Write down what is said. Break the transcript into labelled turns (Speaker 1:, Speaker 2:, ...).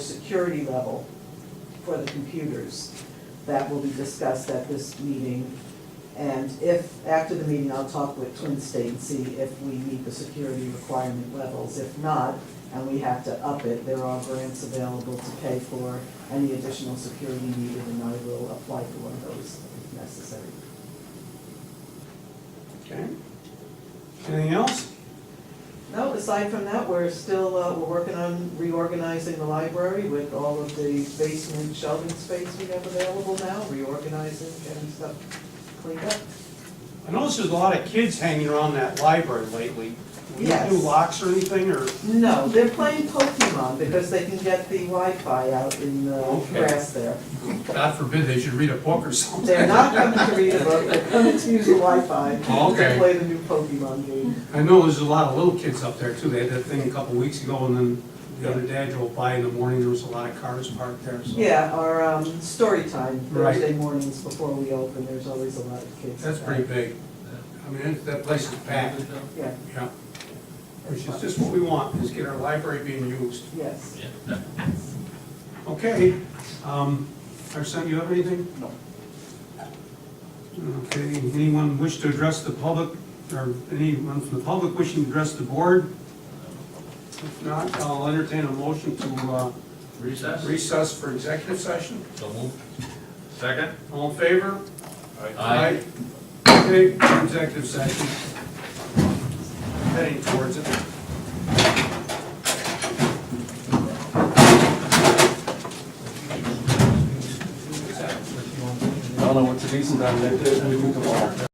Speaker 1: security level for the computers that will be discussed at this meeting. And if, after the meeting, I'll talk with Twin State and see if we meet the security requirement levels. If not, and we have to up it, there are grants available to pay for any additional security needed, and I will apply for one of those if necessary.
Speaker 2: Okay. Anything else?
Speaker 1: No, aside from that, we're still, uh, we're working on reorganizing the library with all of the basement shelving space we have available now, reorganizing, getting stuff cleaned up.
Speaker 2: I noticed there's a lot of kids hanging around that library lately. Do you
Speaker 1: Yes.
Speaker 2: do locks or anything, or?
Speaker 1: No, they're playing Pokemon because they can get the Wi-Fi out in the
Speaker 2: Okay.
Speaker 1: grass there.
Speaker 3: God forbid they should read a book or something.
Speaker 1: They're not coming to read a book, they're coming to use the Wi-Fi to
Speaker 3: Okay.
Speaker 1: play the new Pokemon game.
Speaker 3: I know there's a lot of little kids up there too. They had that thing a couple weeks ago and then the other day I drove by in the morning, there was a lot of cars parked there, so.
Speaker 1: Yeah, our, um, story time,
Speaker 3: Right.
Speaker 1: Thursday mornings before we open, there's always a lot of kids.
Speaker 3: That's pretty big. I mean, that- that place is packed,
Speaker 1: Yeah,
Speaker 3: yeah. Which is just what we want, is get our library being used.
Speaker 1: yes.
Speaker 3: Okay, um, Arsen, you have anything? No. Okay, anyone wish to address the public, or anyone from the public wishing to address the board? If not, I'll entertain a motion to, uh,
Speaker 4: Recess?
Speaker 3: recess for executive session.
Speaker 4: So moved. Second?
Speaker 3: All in favor?
Speaker 4: Aye.
Speaker 3: Okay, executive session. Heading towards it.
Speaker 5: I don't know what Denise and I did, we do tomorrow.